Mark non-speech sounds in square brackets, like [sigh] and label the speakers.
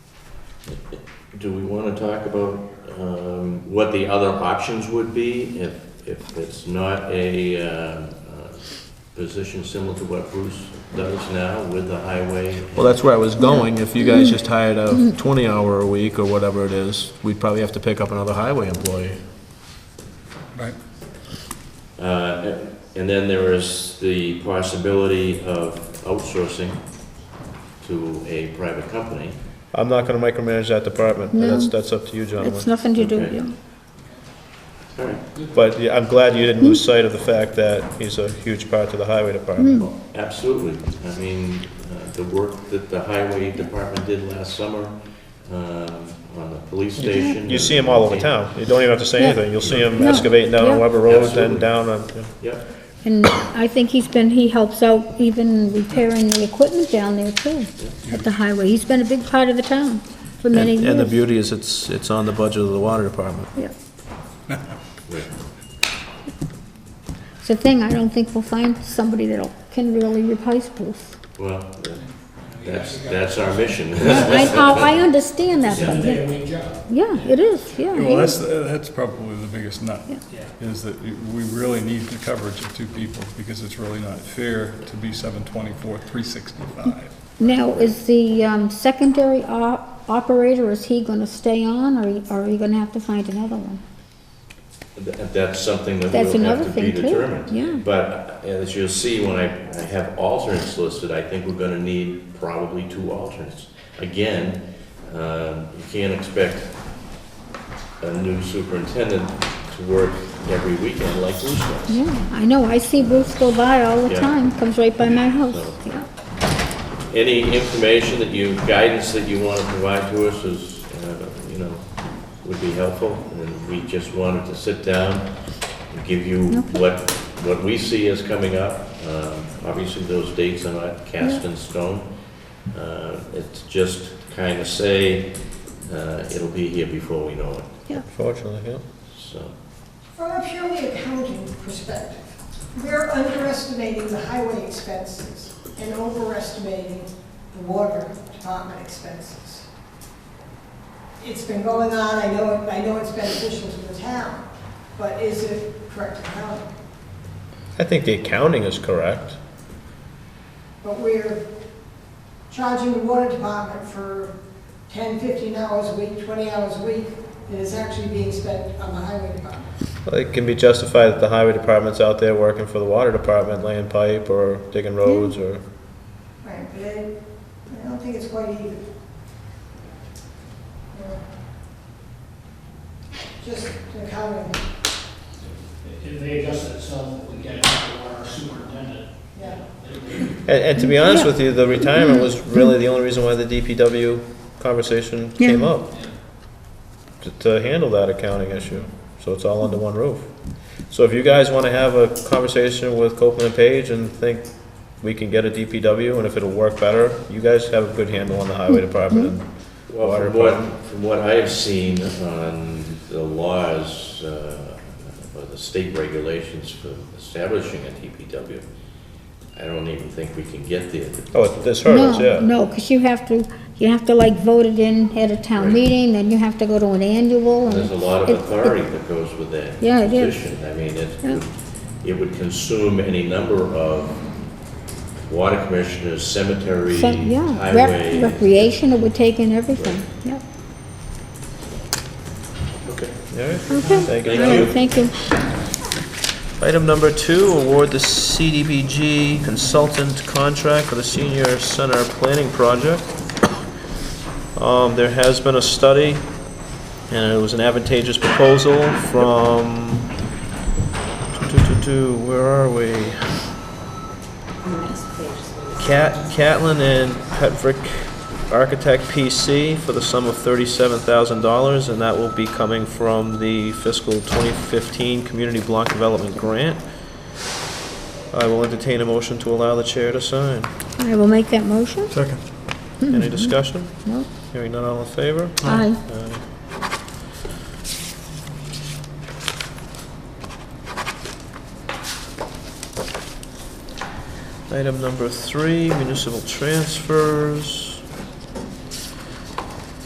Speaker 1: Do we want to talk about um, what the other options would be if, if it's not a uh, uh, position similar to what Bruce does now with the highway?
Speaker 2: Well, that's where I was going. If you guys just hired a 20-hour a week or whatever it is, we'd probably have to pick up another highway employee.
Speaker 3: Right.
Speaker 1: Uh, And then there is the possibility of outsourcing to a private company.
Speaker 2: I'm not going to micromanage that department.
Speaker 4: No.
Speaker 2: That's, that's up to you,
Speaker 4: It's
Speaker 2: gentlemen.
Speaker 4: nothing to do with
Speaker 1: Okay.
Speaker 4: you.
Speaker 1: All right,
Speaker 2: But yeah, I'm glad you didn't lose sight of the fact that he's a huge part to the highway department.
Speaker 1: Absolutely. I mean, uh, the work that the highway department did last summer um, on the police station.
Speaker 2: You see him all over town. You don't even have to say
Speaker 4: Mm. Yeah.
Speaker 2: anything. You'll see him
Speaker 4: No.
Speaker 2: excavating down on
Speaker 4: Yeah.
Speaker 2: Weber Road, then
Speaker 1: Absolutely.
Speaker 2: down on,
Speaker 1: Yep,
Speaker 4: And I think he's been, he helps out even repairing the equipment down there too, at the highway. He's been a big part of the town for many
Speaker 2: And, and the
Speaker 4: years.
Speaker 2: beauty is it's, it's on the budget of the water department.
Speaker 4: Yeah.
Speaker 1: right.
Speaker 4: It's a thing, I don't think we'll find somebody that'll, can really replace Bruce.
Speaker 1: Well, that's, that's our mission.
Speaker 4: I, oh, I I understand that, but, yeah.
Speaker 5: day-to-week job.
Speaker 4: yeah, it is, yeah.
Speaker 3: Well, that's, that's probably the biggest nut,
Speaker 4: Yeah.
Speaker 3: is that we really need the coverage of two people, because it's really not fair to be seven twenty-four, three sixty-five.
Speaker 4: Now, is the um, secondary op- operator, is he gonna stay on, or or are you gonna have to find another one?
Speaker 1: Th- [laughs] That's something that
Speaker 4: That's
Speaker 1: will
Speaker 4: another
Speaker 1: have to be
Speaker 4: thing too,
Speaker 1: determined.
Speaker 4: yeah.
Speaker 1: But uh, as you'll see, when I, I have alternates listed, I think we're gonna need probably two alternates. Again, um, you can't expect a new superintendent to work every weekend like Bruce does.
Speaker 4: Yeah, I know, I see Bruce go by all the
Speaker 1: Yeah.
Speaker 4: time, comes right by my house, yeah.
Speaker 1: Any information that you, guidance that you want to provide to us is, uh, you know, would be helpful. And we just wanted to sit down and give you
Speaker 4: Okay.
Speaker 1: what, what we see as coming up. Um, Obviously, those dates are not cast in stone. Uh, It's just kind of say, uh, it'll be here before we know it,
Speaker 2: Fortunately, yeah.
Speaker 1: so.
Speaker 5: From a purely accounting perspective, we're underestimating the highway expenses and overestimating the water department expenses. It's been going on, I know, it- I know it's beneficial to the town, but is it correct accounting?
Speaker 2: I think the accounting is correct.
Speaker 5: But we're charging the water department for 10, 15 hours a week, 20 hours a week, that is actually being spent on the highway department.
Speaker 2: It can be justified that the highway department's out there working for the water department, laying pipe or digging roads or,
Speaker 5: Right, but I, I don't think it's quite even. Yeah. Just the comment,
Speaker 6: If they adjust it so we get it to our superintendent,
Speaker 5: yeah.
Speaker 6: they would
Speaker 2: and, and to be honest with you, the
Speaker 4: Mm-hmm.
Speaker 2: retirement was really the only reason why the DPW conversation came
Speaker 4: Yeah.
Speaker 2: up. To, to handle that accounting issue, so it's all under one roof. So if you guys wanna have a conversation with Copeland and Page and think we can get a DPW and if it'll work better, you guys have a good handle on the highway
Speaker 4: Mm-hmm.
Speaker 2: department and
Speaker 1: Well,
Speaker 2: Water
Speaker 1: from what,
Speaker 2: department.
Speaker 1: from what I have seen on the laws, uh, or the state regulations for establishing a DPW, I don't even think we can get there.
Speaker 2: Oh, this hurts, yeah.
Speaker 4: No, no, because you have to, you have to like vote it in at a town
Speaker 1: Right.
Speaker 4: meeting, then you have to go to an annual, and...
Speaker 1: There's a lot of
Speaker 4: it- it-
Speaker 1: authority that goes with that
Speaker 4: Yeah, it is.
Speaker 1: position. I mean,
Speaker 4: Yeah.
Speaker 1: it, it would consume any number of water commissioners, cemetery,
Speaker 4: so- Yeah, rec-
Speaker 1: highway.
Speaker 4: recreation, it would take in everything, yeah.
Speaker 1: Okay.
Speaker 2: All right.
Speaker 4: Okay.
Speaker 2: Thank you.
Speaker 1: Thank
Speaker 4: All right,
Speaker 1: you.
Speaker 4: Thank you.
Speaker 2: Item number two, award the CDBG consultant contract for the senior center planning project. Um, there has been a study, and it was an advantageous proposal from, two, two, two, two, where are we? Cat, Catlin and Petrick Architect PC for the sum of thirty-seven thousand dollars, and that will be coming from the fiscal twenty fifteen Community Block Development Grant. I will entertain a motion to allow the chair to sign.
Speaker 4: I will make that motion.
Speaker 3: Second.
Speaker 2: Any discussion?
Speaker 4: No.
Speaker 2: Hearing none, all in favor?
Speaker 4: Aye.
Speaker 2: Item number three, municipal transfers.